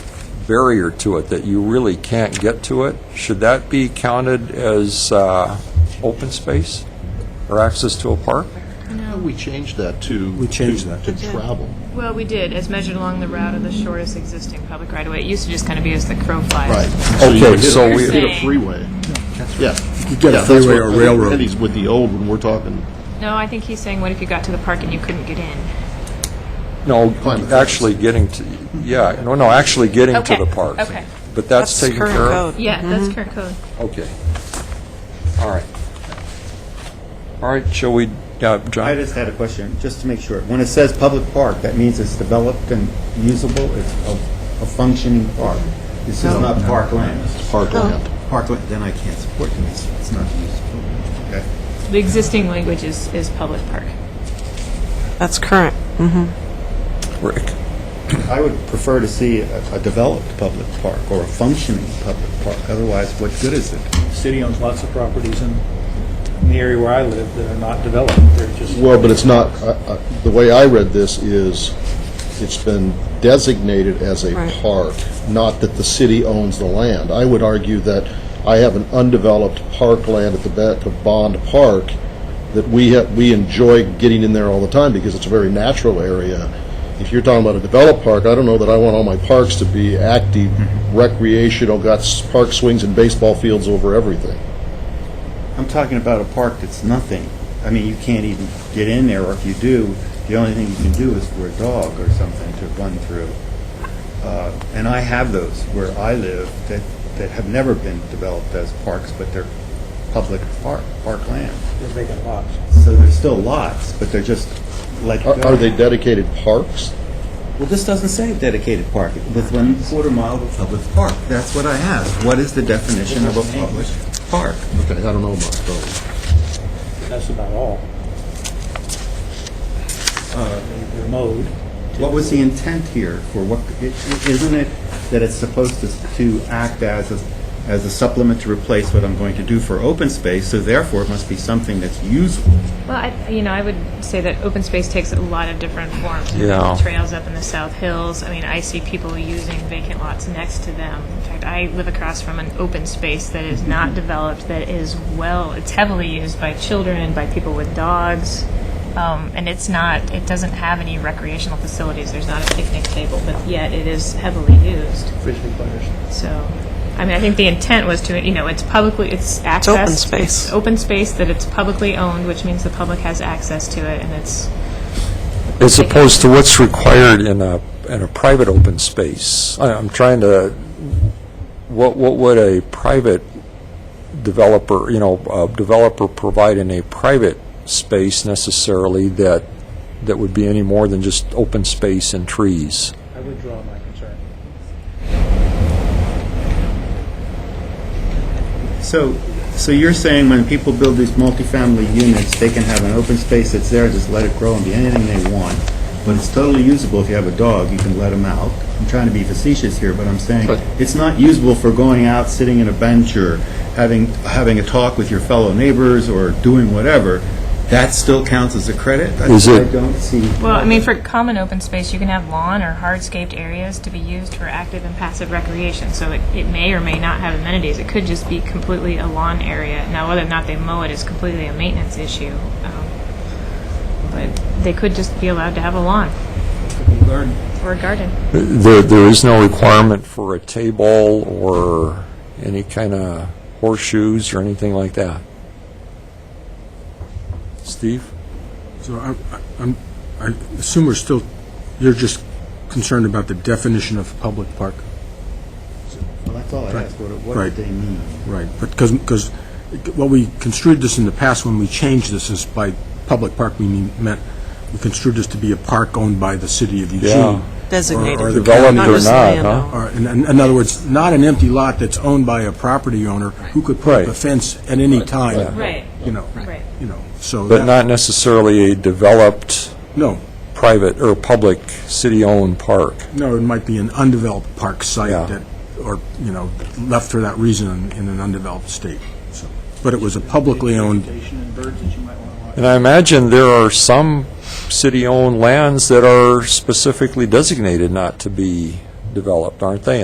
barrier to it, that you really can't get to it, should that be counted as uh, open space or access to a park? No, we changed that to. We changed to- that. To travel. Well, we did, as measured along the route of the shortest existing public right-of-way. It used to just kind of be as the crow flies. So you Okay, would hit a- so you we- Hit a freeway. Yeah. You get Yeah, a that's freeway what- or I think railroad. Penny's with the old when we're talking. No, I think he's saying, what if you got to the park and you couldn't get in? No, Climate fence. actually getting to, yeah, no, no, actually getting to Okay, the park. okay. But that's taken care of? Yeah, that's current code. Okay. All right. All right, shall we, uh, I John? just had a question, just to make sure. When it says public park, that means it's developed and usable, it's a a functioning park. This is not parkland. Parkland. Parkland, then I can't support this, it's not usable. Okay. The existing language is, is public park. That's current. Rick? I would prefer to see a a developed public park or a functioning public park, otherwise what good is it? City owns lots of properties in, in the area where I live that are not developed. They're just. Well, but it's not, I- I- the way I read this is, it's been designated as a Right. park, not that the city owns the land. I would argue that I have an undeveloped parkland at the back of Bond Park that we, ha- we enjoy getting in there all the time because it's a very natural area. If you're talking about a developed park, I don't know that I want all my parks to be active recreational, got s- park swings and baseball fields over everything. I'm talking about a park that's nothing. I mean, you can't even get in there, or if you do, the only thing you can do is for a dog or something to run through. Uh, And I have those where I live that, that have never been developed as parks, but they're public park, parkland. They're vacant lots. So there's still lots, but they're just like. Are are they dedicated parks? Well, this doesn't say dedicated park, with one quarter mile of a public park. That's what I asked. What is the definition of a public park? Okay, I don't know about those. That's about all. Uh, they- They're mowed. What was the intent here for what, i- i- isn't it that it's supposed to, to act as, a- as a supplement to replace what I'm going to do for open space, so therefore it must be something that's usable? Well, I, you know, I would say that open space takes a lot of different forms. Yeah. Trails up in the South Hills. I mean, I see people using vacant lots next to them. In fact, I live across from an open space that is not developed, that is well, it's heavily used by children, by people with dogs. Um, and it's not, it doesn't have any recreational facilities. There's not a picnic table, but yet it is heavily used. Frisbee players. So, I mean, I think the intent was to, you know, it's publicly, it's accessed. open space. it's Open space, that it's publicly owned, which means the public has access to it, and it's, As opposed to what's required in a, in a private open space. I- I'm trying to, what, what would a private developer, you know, a developer provide in a private space necessarily that, that would be any more than just open space and trees? I withdraw my concern. So, so you're saying when people build these multifamily units, they can have an open space that's there, just let it grow and be anything they want, but it's totally usable if you have a dog, you can let them out. I'm trying to be facetious here, but I'm saying it's not usable for going out, sitting in a bench, or having, having a talk with your fellow neighbors, or doing whatever. That still counts as a credit? Is I- it- I don't see. well, I mean, for common open space, you can have lawn or hardscaped areas to be used for active and passive recreation, so it, it may or may not have amenities. It could just be completely a lawn area. Now, whether or not they mow it is completely a maintenance issue, um, but they could just be allowed to have a lawn Garden. or a garden. There, there is no requirement for a table or any kind of horseshoes or anything like that. Steve? So I, I'm, I assume we're still, you're just concerned about the definition of public park, Well, that's all I asked, what, what Right. did they mean? right? But because, because what we construed this in the past when we changed this is by public park, we mean, meant, we construed this to be a park owned by the city of Yeah. Eugene. Designated. Or- or the Developed county. or just not, land huh? owned. Or, in, in other words, not an empty lot that's owned by a property owner who could put up a Right. fence at any time. Right. You know, Right. you know, so. But that- not necessarily a developed No, private or public city-owned park. no, it might be an undeveloped park Yeah. site that, or, you know, left for that reason in an undeveloped state. So, But it was a publicly owned, Vegetation and birds that you might want to watch. And I imagine there are some city-owned lands that are specifically designated not to be developed, aren't they?